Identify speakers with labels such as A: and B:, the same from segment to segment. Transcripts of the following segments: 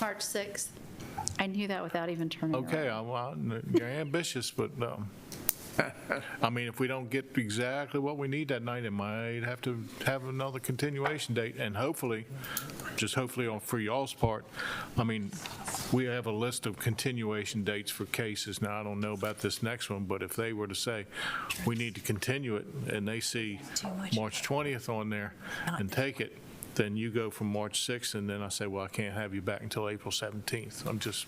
A: March 6th. I knew that without even turning around.
B: Okay, I'm- I'm- you're ambitious, but, um, I mean, if we don't get exactly what we need that night, it might have to have another continuation date, and hopefully, just hopefully on for y'all's part, I mean, we have a list of continuation dates for cases. Now, I don't know about this next one, but if they were to say, we need to continue it, and they see March 20th on there and take it, then you go from March 6th, and then I say, well, I can't have you back until April 17th. I'm just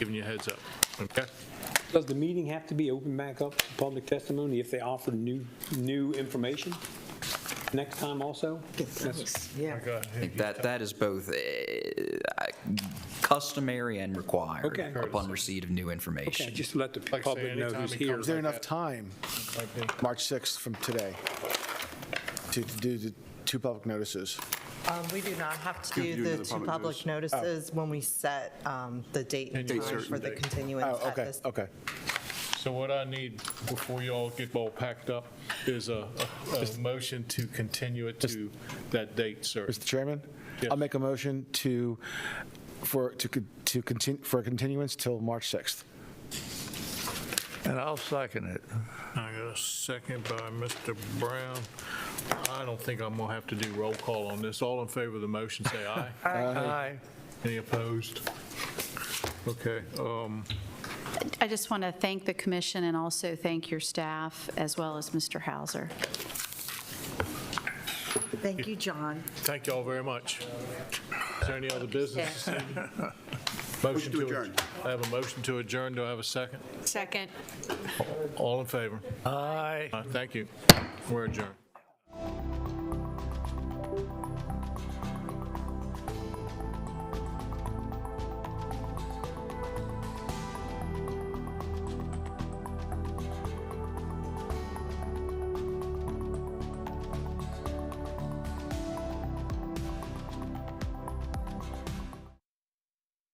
B: giving you a heads up, okay?
C: Does the meeting have to be open back up to public testimony if they offer new, new information next time also? That's-
D: Yeah.
E: That, that is both eh, customary and required
C: Okay.
E: upon receipt of new
C: Okay,
E: information.
C: just let the
B: Like I say,
C: public know
B: anytime
C: who's
B: it
C: here.
B: comes
D: Is there enough time, March 6th from today, to to do the two public notices?
F: Um, We do not have to do the two public notices when we set um, the date and
B: Date
F: time
B: certain
F: for the
B: date.
F: continuance
D: Oh,
F: at
D: okay,
F: this.
D: okay.
B: So what I need before y'all get all packed up is a, a- a motion to continue it to that date, sir.
D: Mr. Chairman,
B: Yes.
D: I'll make a motion to, for, to, con- to continue, for a continuance till March 6th.
G: And I'll second it.
B: I got a second by Mr. Brown. I don't think I'm gonna have to do roll call on this. All in favor of the motion, say aye.
G: Aye.
B: Any opposed? Okay, um,
A: I just want to thank the commission and also thank your staff, as well as Mr. Hauser.
H: Thank you, John.
B: thank y'all very much. Is there any other business? this evening? Motion
I: to adjourn.
B: I have a motion to adjourn. Do I have a second?
H: Second.
B: All in favor?
G: Aye.
B: Uh, Thank you. We're adjourned.